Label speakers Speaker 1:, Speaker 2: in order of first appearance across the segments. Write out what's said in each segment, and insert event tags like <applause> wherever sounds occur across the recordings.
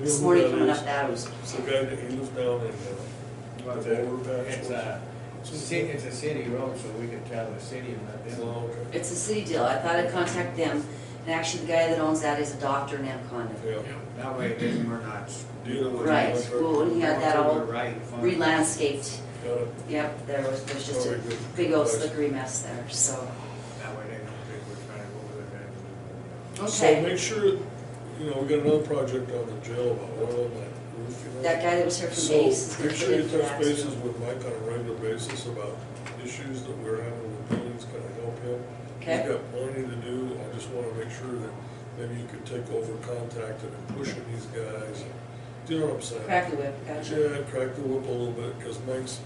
Speaker 1: This morning coming up that was,
Speaker 2: It's the guy that he lives down in, uh, the
Speaker 3: It's
Speaker 2: overpass.
Speaker 3: a, ci- it's a city road, so we can tell the city and let
Speaker 2: It's
Speaker 3: them.
Speaker 2: long, okay.
Speaker 1: it's a city deal. I thought I'd contact them. And actually, the guy that owns that is a doctor in Anaconda.
Speaker 2: Yeah.
Speaker 3: That way then we're not.
Speaker 2: Dealing with.
Speaker 1: Right, well, he had that all
Speaker 3: Right. fine.
Speaker 1: Re-landscaped.
Speaker 2: Got it.
Speaker 1: Yep, there was, there's just
Speaker 2: Oh,
Speaker 1: a
Speaker 2: we good.
Speaker 1: big old
Speaker 2: Nice.
Speaker 1: slickery mess there, so.
Speaker 3: That way they don't think we're trying to go over their heads.
Speaker 2: So
Speaker 1: Okay.
Speaker 2: make sure, you know, we got another project on the jail, about oil and that roof, you know.
Speaker 1: That guy that was here from
Speaker 2: So
Speaker 1: Base is gonna put
Speaker 2: make sure
Speaker 1: in
Speaker 2: you
Speaker 1: for
Speaker 2: touch
Speaker 1: that.
Speaker 2: bases with Mike on a regular basis about issues that we're having with buildings, can I help him?
Speaker 1: Okay.
Speaker 2: He's got plenty to do, I just wanna make sure that maybe you could take over contacting and pushing these guys, do you know what I'm saying?
Speaker 1: Crack the whip, gotcha.
Speaker 2: Yeah, crack the whip a little bit, because Mike's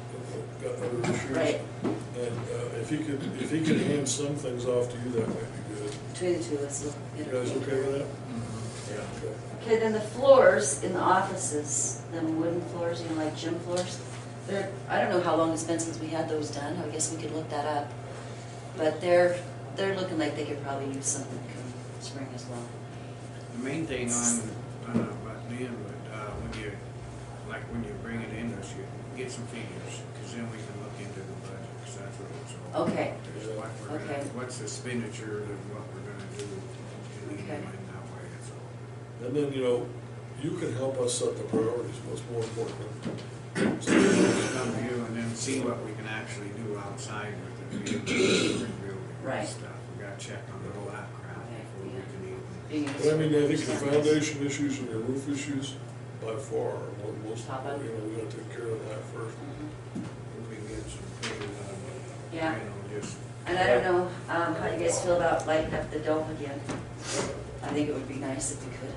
Speaker 2: got other issues.
Speaker 1: Right.
Speaker 2: And uh, if he could, if he could hand some things off to you, that might be good.
Speaker 1: Between the two, let's look.
Speaker 2: You
Speaker 1: at it.
Speaker 2: guys okay with that? Yeah. Okay.
Speaker 1: Okay, then the floors in the offices, them wooden floors, you know, like gym floors, they're, I don't know how long it's been since we had those done, I guess we could look that up. But they're, they're looking like they could probably use something come spring as well.
Speaker 3: The main thing on, on about them, but, uh, when you, like, when you bring it in, is you get some figures, cause then we can look into the budget, cause that's what it's all. about.
Speaker 1: Okay.
Speaker 3: Is what we're gonna,
Speaker 1: Okay.
Speaker 3: what's the expenditure and what we're gonna do, and then in
Speaker 1: Okay.
Speaker 3: that way, that's all.
Speaker 2: And then, you know, you can help us set the priorities, what's more important. So,
Speaker 3: Just Come to you and then see what we can actually do outside with the building
Speaker 1: Right.
Speaker 3: and stuff. We gotta check on the whole app crowd before we can even.
Speaker 1: Being
Speaker 2: But I mean, I think
Speaker 1: used
Speaker 2: the
Speaker 1: for-
Speaker 2: foundation issues and the roof issues, by far, are what most,
Speaker 1: Top up.
Speaker 2: you know, we gotta take care of that first.
Speaker 1: Mhm.
Speaker 3: If we get some figures out of it, you
Speaker 1: Yeah.
Speaker 3: know, just
Speaker 1: And I don't know, um, how you guys feel about lighting up the dome again? I think it would be nice if we could.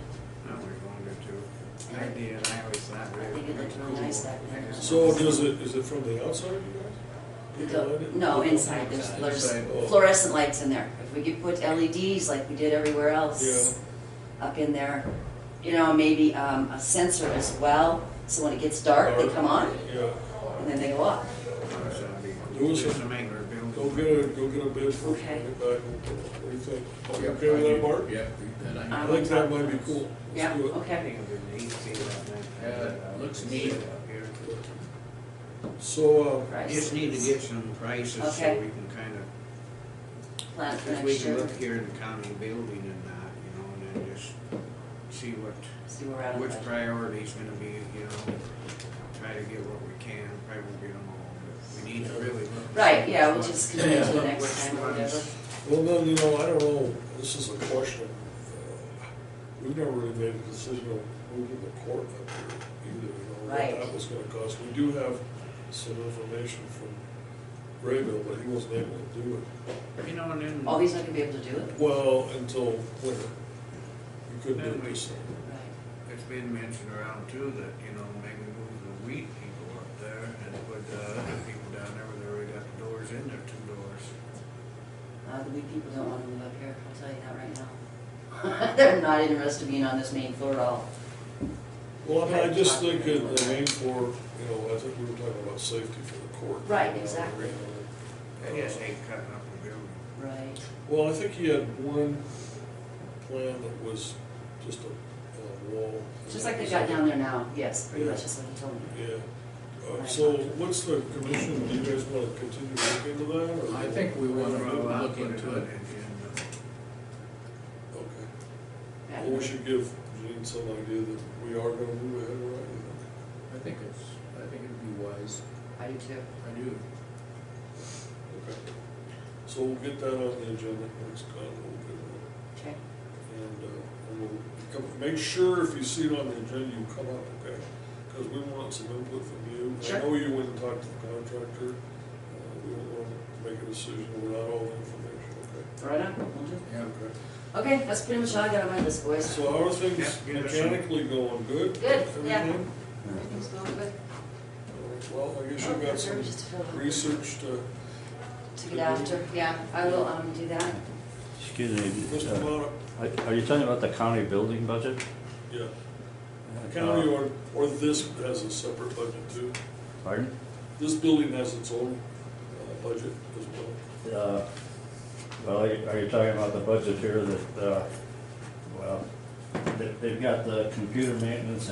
Speaker 3: how we wanted to. I did, I always thought.
Speaker 1: I think it looked really nice back then.
Speaker 2: So does it, is it from the outside, you guys?
Speaker 1: The dome- No, inside, there's, there's
Speaker 2: oh.
Speaker 1: fluorescent lights in there. If we could put LEDs like we did everywhere else up in there, you know, maybe, um, a sensor as well, so when it gets dark, they come on
Speaker 2: Yeah.
Speaker 1: and then they go off.
Speaker 2: Louis,
Speaker 3: Just to make our building.
Speaker 4: Oh,
Speaker 2: Go get a, go get a bid for it,
Speaker 1: Okay.
Speaker 2: bring it back, and what do you think? You Okay with that, Bart?
Speaker 4: Yeah, that I-
Speaker 2: I think that might be cool. Let's
Speaker 1: Yeah,
Speaker 2: do it.
Speaker 3: I
Speaker 1: okay.
Speaker 3: think it'd be neat to see that.
Speaker 4: Yeah, looks neat.
Speaker 2: So, uh,
Speaker 1: Price,
Speaker 3: Just need to get some prices so
Speaker 1: Okay.
Speaker 3: we can kind of
Speaker 1: plan for
Speaker 3: Because we
Speaker 1: next
Speaker 3: can
Speaker 1: year,
Speaker 3: look here in the county building and that, you know, and then just see what,
Speaker 1: see where we're at. on
Speaker 3: which
Speaker 1: budget.
Speaker 3: priority's gonna be, you know, try to get what we can, probably won't get them all, but we need to really look. and
Speaker 1: Right,
Speaker 3: see
Speaker 1: yeah, we'll
Speaker 3: what's-
Speaker 1: just continue to the next
Speaker 3: what's-
Speaker 1: time or whatever.
Speaker 3: what's-
Speaker 2: well, then, you know, I don't know, this is a question. Uh, We've never really made a decision on moving the court up here either, you know,
Speaker 1: Right.
Speaker 2: what that was gonna cost. We do have some information from Graybill, but he wasn't able to do it.
Speaker 3: You know, and then.
Speaker 1: Oh, he's not gonna be able to do it?
Speaker 2: Well, until winter. We couldn't do
Speaker 3: Then
Speaker 2: it
Speaker 3: we-
Speaker 2: this summer.
Speaker 1: Right.
Speaker 3: It's been mentioned around too that, you know, maybe move the weed people up there and put the other people down there where they already got the doors in there, two doors.
Speaker 1: Uh, the weak people don't wanna move up here, I'll tell you that right now. <laughs> They're not interested in being on this main floor at all.
Speaker 2: Well, I mean, I just think that the main floor, you know, I think we were talking about safety for the court.
Speaker 1: Right, exactly.
Speaker 3: I just hate cutting up the building.
Speaker 1: Right.
Speaker 2: Well, I think he had one plan that was just a, a wall.
Speaker 1: Just like they got down there now, yes, pretty much,
Speaker 2: Yeah.
Speaker 1: that's what he told me.
Speaker 2: Yeah. Uh, So what's the commission, do you guys want to continue looking into that? or-
Speaker 4: I think we want to
Speaker 3: Well, I'll
Speaker 4: look
Speaker 3: put
Speaker 4: into
Speaker 3: on
Speaker 4: it.
Speaker 3: and, uh,
Speaker 2: Okay.
Speaker 1: Yeah.
Speaker 2: Well, we should give Gene some idea that we are going to move ahead, right?
Speaker 4: I think it's, I think it'd be wise.
Speaker 1: I do too.
Speaker 4: I do.
Speaker 2: Okay. So we'll get that on the agenda next time, we'll get it.
Speaker 1: Okay,
Speaker 2: And, uh, and we'll, come- make sure if you see it on the agenda, you come up, okay? Because we want some input from you.
Speaker 1: Sure.
Speaker 2: I know you went and talked to the contractor. Uh, We don't want to make a decision without all the information, okay?
Speaker 1: right on, will do.
Speaker 4: Yeah.
Speaker 2: Okay.
Speaker 1: Okay, that's pretty much all I got on my list, boys.
Speaker 2: So how are things
Speaker 3: Yeah, yeah, sure.
Speaker 2: mechanically going? Good?
Speaker 1: Good, yeah.
Speaker 2: Everything?
Speaker 1: Everything's going good.
Speaker 2: Uh, Well, I guess
Speaker 1: Oh,
Speaker 2: you've got
Speaker 1: there's
Speaker 2: some
Speaker 1: just to fill out.
Speaker 2: research to,
Speaker 1: To get after, yeah, I will, um, do that.
Speaker 5: Excuse me,
Speaker 2: Mr.
Speaker 5: uh,
Speaker 2: Monk,
Speaker 5: are- are you talking about the county building budget?
Speaker 2: yeah.
Speaker 5: Uh,
Speaker 2: County or, or this has a separate budget too.
Speaker 5: Pardon?
Speaker 2: This building has its own uh, budget as well.
Speaker 5: Uh, Well, are you are you talking about the budget here that, uh, well, they- they've got the computer maintenance